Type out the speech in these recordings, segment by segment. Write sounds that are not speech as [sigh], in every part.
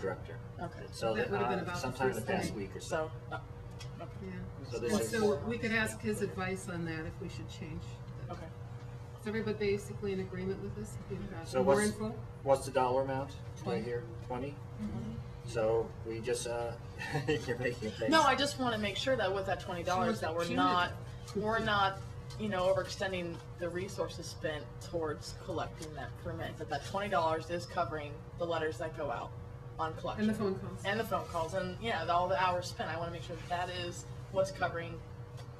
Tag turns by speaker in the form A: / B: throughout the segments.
A: director.
B: Okay.
A: So that,
C: That would've been
A: uh,
C: about the
A: sometime the
C: first
A: past
C: thing.
A: week or so.
B: So,
A: So
C: Yeah,
A: this is,
C: so we could ask his advice on that if we should change. that.
B: okay.
C: Is everybody basically in agreement with this? If you've got
A: So
C: More
A: what's-
C: info?
A: what's the dollar amount
C: Twenty. Mm-hmm.
A: right here? Twenty? So we just, uh, [laughs] you're making a face.
B: No, I just want to make sure that with that twenty dollars, that we're not, we're not, you know, overextending the resources spent towards collecting that permit. That that twenty dollars is covering the letters that go out on collection.
C: And the phone calls.
B: And the phone calls, and yeah, the- all the hours spent. I want to make sure that that is what's covering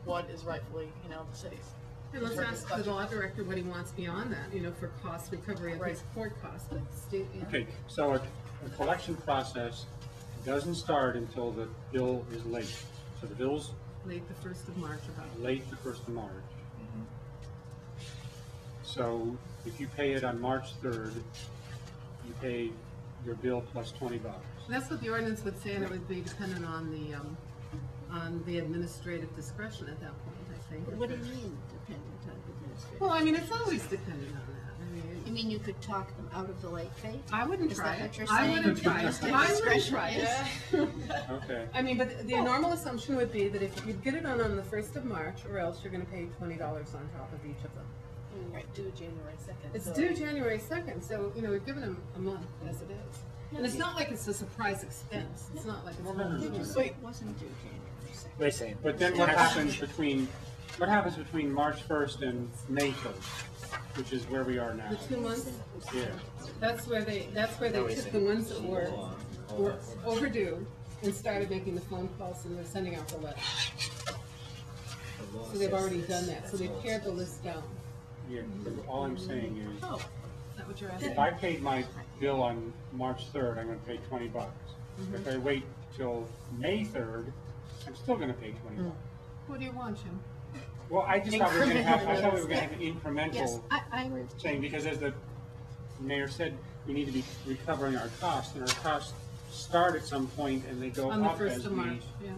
B: what is rightfully, you know, the city's.
C: And let's
B: in terms of
C: ask the
B: collection.
C: law director what he wants beyond that, you know, for cost recovery of his
B: Right.
C: court costs, but state, you know.
D: Okay, so a, a collection process doesn't start until the bill is late. So the bill's
C: late the first of March about.
D: late the first of March. So if you pay it on March third, you pay your bill plus twenty bucks.
C: That's what the ordinance would say, and it would be dependent on the, um, on the administrative discretion at that point, I think.
E: What do you mean dependent on administration?
C: Well, I mean, it's always dependent on that, I mean.
E: You mean you could talk them out of the late fee?
C: I wouldn't
E: Is
C: try
E: that
C: it.
E: what you're
C: I
E: saying?
C: wouldn't try it. I wouldn't
E: Discretion
C: try it.
E: is-
D: Okay,
C: I mean, but the normal assumption would be that if you get it on on the first of March, or else you're gonna pay twenty dollars on top of each of them.
B: Right, due January second.
C: It's due January second, so, you know, we've given them a month as it is. And it's not like it's a surprise expense, it's not like it's.
E: Did you
C: not-
E: say it wasn't due January second?
A: Wait a second.
D: but then what happens between, what happens between March first and May first, which is where we are now?
C: The two months,
D: Yeah,
C: that's where they, that's where they took the ones that were, were overdue and started making the phone calls and they're sending out the letters. So they've already done that, so they've pared the list down.
D: yeah, all I'm saying is.
C: Oh, is that what you're asking?
D: If I paid my bill on March third, I'm gonna pay twenty bucks.
C: Mm-hmm.
D: If I wait till May third, I'm still gonna pay twenty
C: Mm.
D: bucks.
C: What do you want, Jim?
D: Well, I just thought we were gonna have, I thought we were
E: Incremental.
D: gonna have an
E: Yes,
D: incremental
E: I, I agree. with you.
D: thing, because as the mayor said, we need to be recovering our costs, and our costs start at some point, and they go
C: On the
D: up
C: first
D: as
C: of
D: we,
C: March, yeah.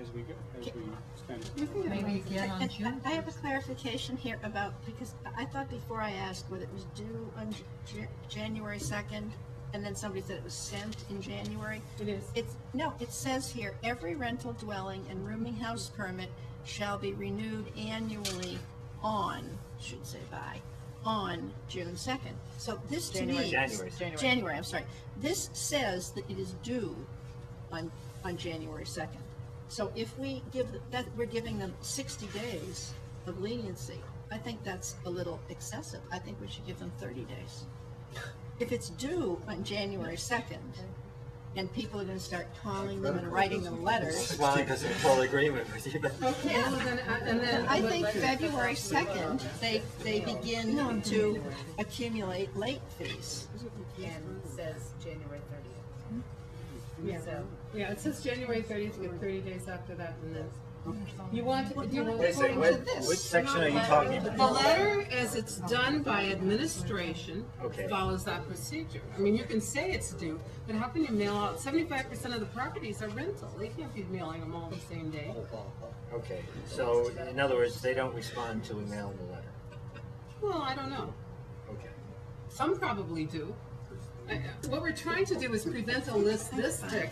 D: as we, go- as we spend.
C: You can get away with it.
E: And I- I have a clarification here about, because I thought before I asked whether it was due on J- J- January second, and then somebody said it was sent in January.
C: It is.
E: It's, no, it says here, every rental dwelling and rooming house permit shall be renewed annually on, should say by, on June second. So this to me.
B: January.
A: January.
B: January.
E: January, I'm sorry. This says that it is due on, on January second. So if we give, the- that, we're giving them sixty days of leniency, I think that's a little excessive. I think we should give them thirty days. If it's due on January second, and people are gonna start calling them and writing them letters,
A: Smiling because I'm in total agreement with you, but
C: Okay, well, then, I- and then.
E: I
C: what
E: think
C: letters-
E: February second, they, they begin to accumulate late fees.
F: and says January thirtieth.
C: Yeah,
F: so-
C: yeah, it says January thirtieth, with thirty days after that, and then, you want, do you
A: wait a
C: want?
A: second,
E: According
A: what,
E: to this,
A: which section are you talking
C: The
A: about?
C: letter, as it's done by administration,
A: Okay.
C: follows that procedure. I mean, you can say it's due, but how can you mail out, seventy-five percent of the properties are rental, they can't be mailing them all the same day.
A: Okay, so in other words, they don't respond till we mail them the letter.
C: Well, I don't know.
A: Okay.
C: Some probably do. I- What we're trying to do is prevent a list this thick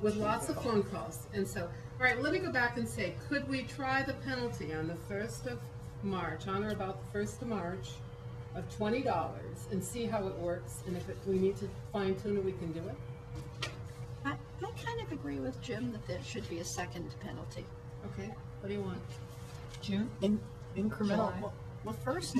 C: with lots of phone calls. And so, all right, let me go back and say, could we try the penalty on the first of March, on or about the first of March, of twenty dollars and see how it works? And if it- we need to fine tune it, we can do it?
E: I, I kind of agree with Jim that there should be a second penalty.
C: Okay, what do you want?
B: Incremental.
E: Well, first,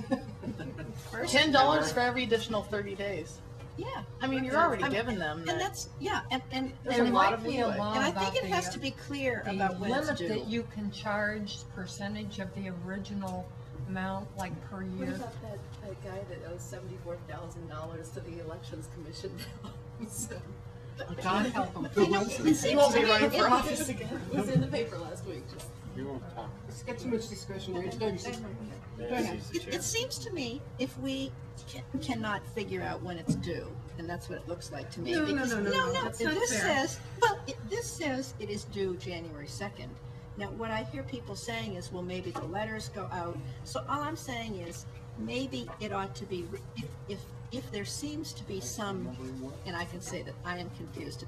E: first,
B: Ten dollars for every additional thirty days.
E: yeah.
B: I mean, you're already giving them
E: And
B: that.
E: that's, yeah, and, and.
B: There's
E: and
B: a
E: it
B: lot
E: might
B: of
E: be-
B: leeway.
E: And I think
G: about
E: it has
G: the-
E: to be clear
G: The
E: about when it's
G: limit
E: due.
G: that you can charge percentage of the original amount, like per
F: What
G: year.
F: about that, that guy that owes seventy-four thousand dollars to the elections commission? [laughs] So,
C: God help them.
E: You know, it seems
B: won't
E: to
B: be
E: me
B: running
E: it-
B: for office again.
F: It was in the paper last week, just.
D: We won't talk.
C: It's got too much discretionary. It's gotta be-
E: It, it seems to me if we ca- cannot figure out when it's due, and that's what it looks like to me.
C: No, no,
E: because-
C: no, no, no, that's not
E: This
C: fair.
E: says, well, it, this says it is due January second. Now, what I hear people saying is, well, maybe the letters go out. So all I'm saying is, maybe it ought to be, re- if, if, if there seems to be some, and I can say that I am confused